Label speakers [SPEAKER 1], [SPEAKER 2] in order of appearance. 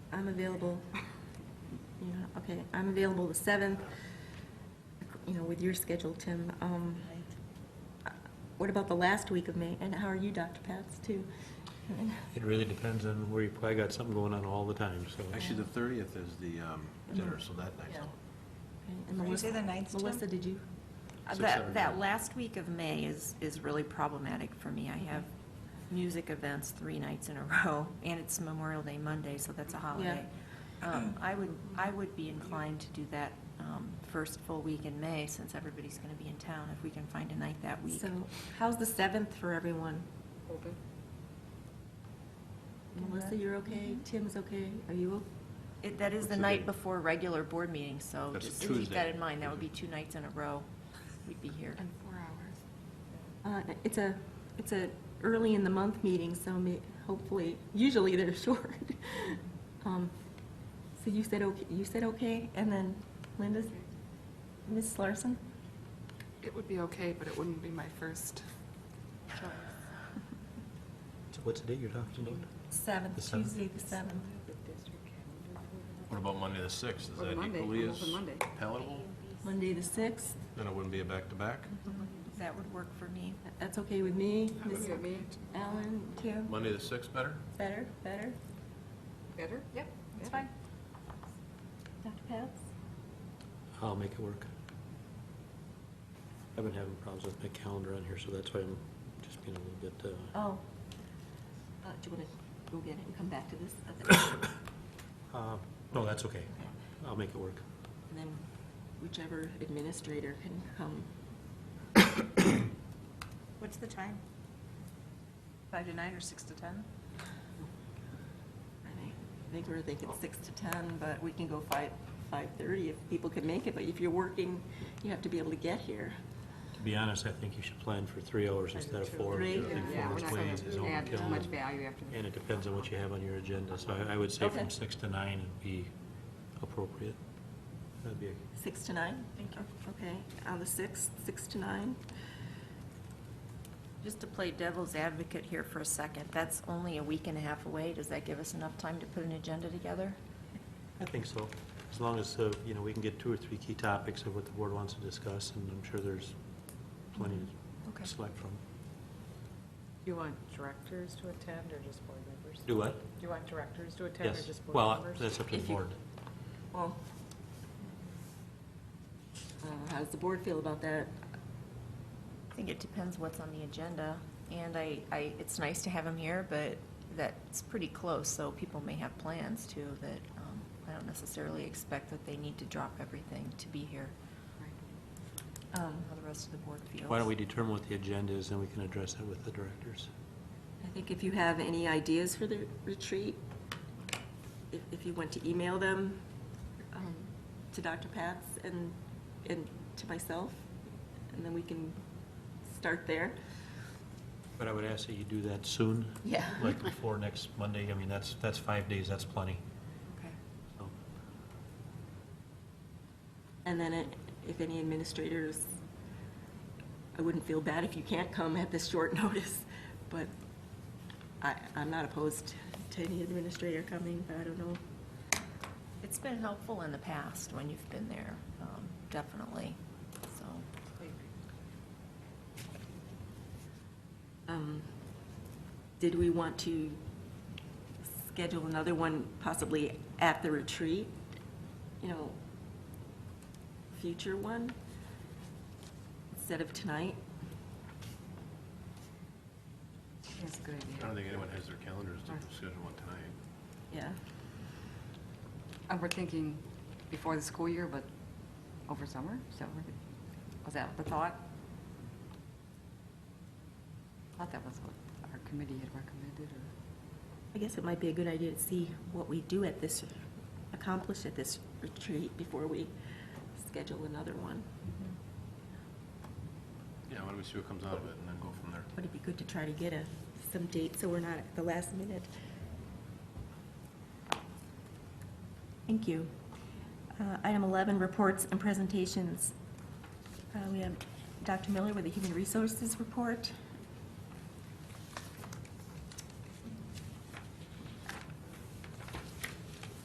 [SPEAKER 1] I'm available, you know, okay, I'm available the 7th, you know, with your schedule, Tim. Um, What about the last week of May? And how are you, Dr. Pats, too?
[SPEAKER 2] It really depends on where you, I got something going on all the time, so.
[SPEAKER 3] Actually, the thirtieth is the um, dinner, so that night's
[SPEAKER 1] Yeah.
[SPEAKER 3] out.
[SPEAKER 1] Okay, and
[SPEAKER 4] Did you
[SPEAKER 1] Melissa-
[SPEAKER 4] say the ninth, Tim?
[SPEAKER 1] Melissa, did you?
[SPEAKER 3] Six,
[SPEAKER 5] That,
[SPEAKER 3] seven,
[SPEAKER 5] that
[SPEAKER 3] nine.
[SPEAKER 5] last week of May is, is really problematic for me. I have music events three nights in a row, and it's Memorial Day Monday, so that's a holiday. Um, I would, I would be inclined to do that um, first full week in May, since everybody's going to be in town, if we can find a night that week.
[SPEAKER 1] So how's the 7th for everyone? Melissa, you're okay?
[SPEAKER 4] Mm-hmm.
[SPEAKER 1] Tim's okay? Are you, o-
[SPEAKER 5] It- That is
[SPEAKER 3] What's
[SPEAKER 5] the
[SPEAKER 3] the
[SPEAKER 5] night
[SPEAKER 3] date?
[SPEAKER 5] before regular board meeting, so
[SPEAKER 3] That's a
[SPEAKER 5] just keep that
[SPEAKER 3] Tuesday.
[SPEAKER 5] in mind. That would be two nights in a row we'd be here.
[SPEAKER 1] Uh, It's a, it's a early in the month meeting, so may, hopefully, usually they're short. Um, So you said okay, you said okay, and then Linda, Ms. Larson?
[SPEAKER 6] It would be okay, but it wouldn't be my first choice.
[SPEAKER 2] So What's the date you're talking about?
[SPEAKER 1] Seventh,
[SPEAKER 2] The seventh?
[SPEAKER 1] Tuesday the seventh.
[SPEAKER 3] What about Monday the sixth? Is
[SPEAKER 7] Or
[SPEAKER 3] that
[SPEAKER 7] Monday,
[SPEAKER 3] equally
[SPEAKER 7] I'm
[SPEAKER 3] as
[SPEAKER 7] open Monday.
[SPEAKER 3] palatable?
[SPEAKER 1] Monday the sixth,
[SPEAKER 3] Then it wouldn't be a back-to-back?
[SPEAKER 7] Mm-hmm.
[SPEAKER 5] That would work for me.
[SPEAKER 1] that's okay with me.
[SPEAKER 7] Would
[SPEAKER 1] Ms.
[SPEAKER 7] you have me
[SPEAKER 1] Allen, Tim,
[SPEAKER 3] Monday the sixth better?
[SPEAKER 1] better, better.
[SPEAKER 7] better? Yep,
[SPEAKER 4] It's fine.
[SPEAKER 1] Dr. Pats?
[SPEAKER 2] I'll make it work. I've been having problems with my calendar on here, so that's why I'm just being a little bit, uh,
[SPEAKER 1] Oh. Uh, Do you want to go get it and come back to this? Okay.
[SPEAKER 2] uh, no, that's okay. I'll make it work.
[SPEAKER 1] And then whichever administrator can come.
[SPEAKER 4] What's the time? Five to nine or six to ten?
[SPEAKER 1] I think- I think we're thinking six to ten, but we can go five, five-thirty if people can make it, but if you're working, you have to be able to get here.
[SPEAKER 2] To be honest, I think you should plan for three hours instead of four.
[SPEAKER 1] Three?
[SPEAKER 2] I think
[SPEAKER 7] Yeah,
[SPEAKER 2] four
[SPEAKER 7] we're
[SPEAKER 2] is
[SPEAKER 7] not
[SPEAKER 2] way-
[SPEAKER 7] going
[SPEAKER 2] is
[SPEAKER 7] to add too
[SPEAKER 2] overkill.
[SPEAKER 7] much value after the.
[SPEAKER 2] And it depends on what you have on your agenda, so I, I would say
[SPEAKER 1] Okay.
[SPEAKER 2] from six to nine would be appropriate. That'd be,
[SPEAKER 1] Six to nine? Thank you. Okay, on the sixth, six to nine?
[SPEAKER 5] Just to play devil's advocate here for a second, that's only a week and a half away. Does that give us enough time to put an agenda together?
[SPEAKER 2] I think so, as long as, uh, you know, we can get two or three key topics of what the board wants to discuss, and I'm sure there's plenty
[SPEAKER 5] Okay.
[SPEAKER 2] to select from.
[SPEAKER 8] You want directors to attend or just board members?
[SPEAKER 2] Do what?
[SPEAKER 8] You want directors to attend or
[SPEAKER 2] Yes,
[SPEAKER 8] just board
[SPEAKER 2] well,
[SPEAKER 8] members?
[SPEAKER 2] that's up to the
[SPEAKER 5] If you-
[SPEAKER 2] board.
[SPEAKER 1] Well, uh, how does the board feel about that?
[SPEAKER 5] I think it depends what's on the agenda, and I, I, it's nice to have them here, but that's pretty close, so people may have plans too, that, um, I don't necessarily expect that they need to drop everything to be here. Um, how the rest of the board feels.
[SPEAKER 2] Why don't we determine what the agenda is, and we can address that with the directors?
[SPEAKER 1] I think if you have any ideas for the retreat, if, if you want to email them um, to Dr. Pats and, and to myself, and then we can start there.
[SPEAKER 2] But I would ask that you do that soon.
[SPEAKER 1] Yeah.
[SPEAKER 2] Like before next Monday, I mean, that's, that's five days, that's plenty,
[SPEAKER 5] Okay.
[SPEAKER 2] so.
[SPEAKER 1] And then it- if any administrators, I wouldn't feel bad if you can't come at this short notice, but I, I'm not opposed to any administrator coming, but I don't know.
[SPEAKER 5] It's been helpful in the past when you've been there, um, definitely, so.
[SPEAKER 1] Um, Did we want to schedule another one possibly at the retreat? You know, future one instead of tonight?
[SPEAKER 7] That's a good
[SPEAKER 3] I don't
[SPEAKER 7] idea.
[SPEAKER 3] think anyone has their calendars to schedule one tonight.
[SPEAKER 1] Yeah.
[SPEAKER 7] Uh, We're thinking before the school year, but over summer, so we're- was that the thought? I thought that was what our committee had recommended, or,
[SPEAKER 1] I guess it might be a good idea to see what we do at this, accomplish at this retreat before we schedule another one.
[SPEAKER 3] Yeah, why don't we see what comes out of it and then go from there?
[SPEAKER 1] But it'd be good to try to get a, some date so we're not at the last minute. Thank you. Uh, Item 11, reports and presentations. Uh, We have Dr. Miller with the Human Resources Report.